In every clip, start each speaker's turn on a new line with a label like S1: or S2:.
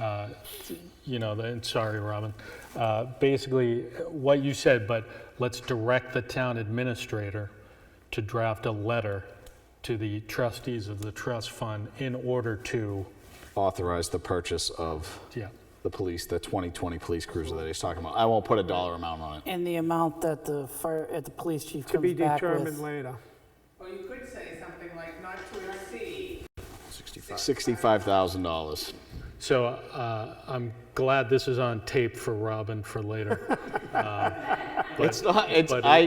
S1: Uh, you know, the- and sorry, Robin, uh, basically what you said, but let's direct the town administrator to draft a letter to the trustees of the trust fund in order to,
S2: Authorize the purchase of
S1: yeah,
S2: the police, the 2020 police cruiser that he's talking about. I won't put a dollar amount on it.
S3: And the amount that the fire, at the police chief
S4: To be
S3: comes back
S4: determined
S3: with.
S4: later.
S5: Or you could say something like not to exceed.
S2: $65,000.
S1: So uh, I'm glad this is on tape for Robin for later.
S2: It's not, it's,
S1: but it-
S2: I,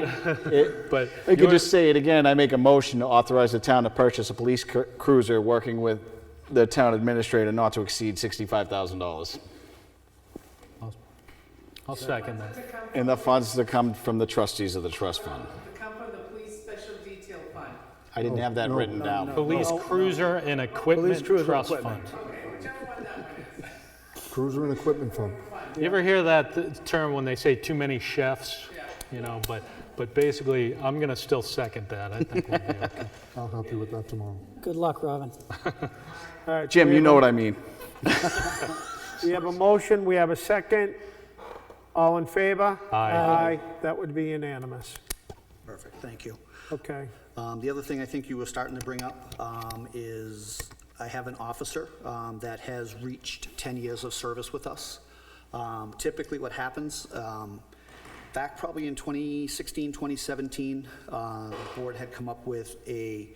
S2: it,
S1: But
S2: I could
S1: you're-
S2: just say it again. I make a motion to authorize the town to purchase a police cru- cruiser working with the town administrator not to exceed $65,000.
S1: I'll second that.
S5: To come,
S2: And the funds to come from the trustees of the trust fund.
S5: to come from the police special detail fund.
S2: I didn't have that written down.
S1: Police cruiser and equipment
S4: cruiser
S1: trust fund.
S4: equipment.
S6: Cruiser and equipment fund.
S1: You ever hear that th- term when they say too many chefs? You know, but, but basically, I'm going to still second that. I think we'll be okay.
S6: I'll help you with that tomorrow.
S3: Good luck, Robin.
S4: All right,
S2: Jim,
S4: we
S2: you
S4: have
S2: know
S4: a-
S2: what I mean.
S4: We have a motion, we have a second. All in favor?
S1: Aye.
S4: That would be unanimous.
S7: Perfect, thank you.
S4: Okay.
S7: Um, The other thing I think you were starting to bring up um, is I have an officer um, that has reached 10 years of service with us. Um, Typically, what happens, um, back probably in 2016, 2017, uh, the board had come up with a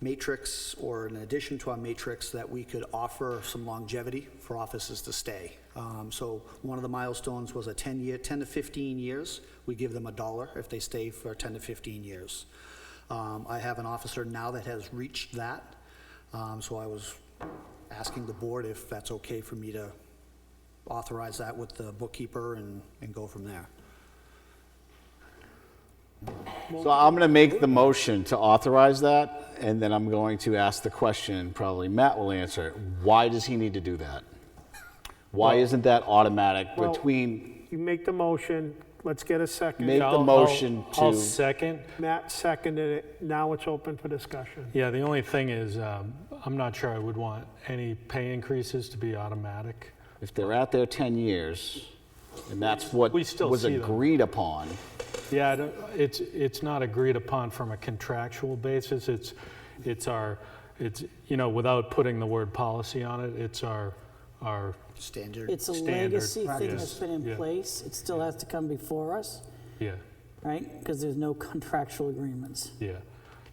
S7: matrix or an addition to our matrix that we could offer some longevity for offices to stay. Um, So one of the milestones was a 10-year, 10 to 15 years, we give them a dollar if they stay for 10 to 15 years. Um, I have an officer now that has reached that, Um, so I was asking the board if that's okay for me to authorize that with the bookkeeper and, and go from there.
S2: So I'm going to make the motion to authorize that, and then I'm going to ask the question, probably Matt will answer, it. why does he need to do that? Why isn't that automatic
S4: Well-
S2: between,
S4: You make the motion, let's get a second.
S2: Make- the
S1: I'll- I'll-
S2: motion
S1: I'll
S2: to-
S1: second.
S4: Matt seconded it, now it's open for discussion.
S1: Yeah, the only thing is, um, I'm not sure I would want any pay increases to be automatic.
S2: if they're out there 10 years, and that's what
S1: We still
S2: was
S1: see them.
S2: agreed upon,
S1: Yeah, I don't- it's, it's not agreed upon from a contractual basis. It's, it's our, it's, you know, without putting the word policy on it, it's our, our,
S7: Standard.
S3: It's a
S1: Standard
S3: legacy thing that's
S1: practice.
S3: been in
S1: Yeah.
S3: place. It still has to come before us,
S1: yeah,
S3: right? Because there's no contractual agreements.
S1: yeah.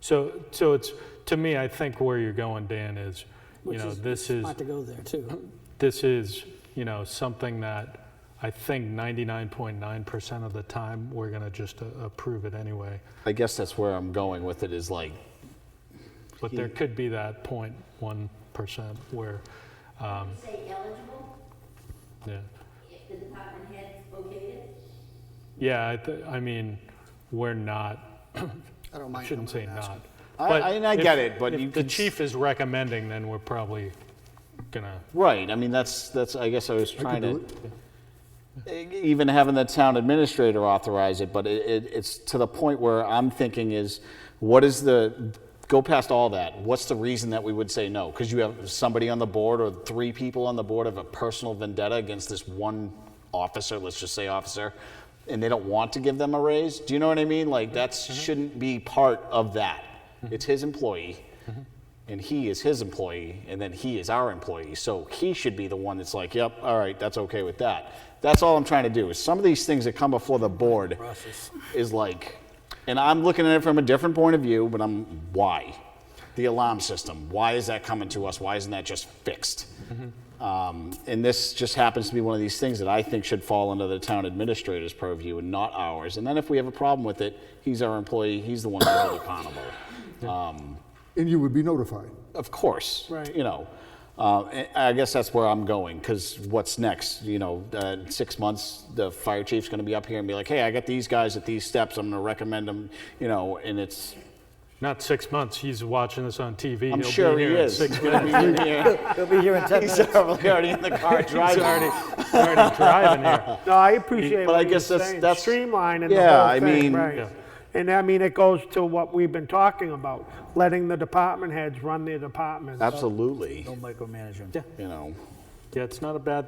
S1: So, so it's, to me, I think where you're going, Dan, is, you
S3: Which
S1: know,
S3: is
S1: this is,
S3: Not to go there, too.
S1: this is, you know, something that I think 99.9% of the time, we're going to just uh, approve it anyway.
S2: I guess that's where I'm going with it, is like,
S1: But there could be that 0.1% where,
S8: say eligible,
S1: yeah.
S8: if the department head's okayed it?
S1: Yeah, I, th- I mean, we're not,
S7: I don't mind.
S1: shouldn't
S7: I don't
S1: say
S7: mind asking.
S1: not.
S2: I-
S1: But
S2: I- and I
S1: if-
S2: get it, but
S1: if
S2: you
S1: the
S2: can s-
S1: chief is recommending, then we're probably gonna,
S2: right, I mean, that's, that's, I guess I was
S6: I
S2: trying
S6: could do
S2: to, e-,
S6: it.
S2: even having the town administrator authorize it, but it, it, it's to the point where I'm thinking is, what is the, go past all that, what's the reason that we would say no? Because you have somebody on the board or three people on the board of a personal vendetta against this one officer, let's just say officer, and they don't want to give them a raise? Do you know what I mean? Like, that
S6: Mm-hmm.
S2: shouldn't be part of that. It's his employee, and he is his employee, and then he is our employee. So he should be the one that's like, yep, all right, that's okay with that. That's all I'm trying to do is some of these things that come before the board is like, and I'm looking at it from a different point of view, but I'm, why? The alarm system, why is that coming to us? Why isn't that just fixed? Um, and this just happens to be one of these things that I think should fall under the town administrator's purview and not ours. And then if we have a problem with it, he's our employee, he's the one that's held accountable.
S6: And you would be notified.
S2: Of course.
S4: Right.
S2: You know, uh, and I guess that's where I'm going because what's next? You know, uh, in six months, the fire chief's going to be up here and be like, hey, I got these guys at these steps. I'm going to recommend them, you know, and it's,
S1: not six months, he's watching this on TV. He'll
S2: I'm
S1: be
S2: sure he
S1: here in
S2: is.
S1: six-
S2: He's gonna be in here.
S9: He'll be here in 10
S2: He's
S9: minutes.
S2: probably already in the car driving.
S1: he's Already driving here.
S4: No, I appreciate
S2: But I
S4: what you're
S2: guess that's-
S4: saying,
S2: that's-
S4: streamlining the
S2: Yeah,
S4: whole
S2: I
S4: thing,
S2: mean-
S4: right.
S1: Yeah.
S4: And I mean, it goes to what we've been talking about, letting the department heads run their departments.
S2: Absolutely.
S9: No micromanagement.
S2: You know.
S1: Yeah, it's not a bad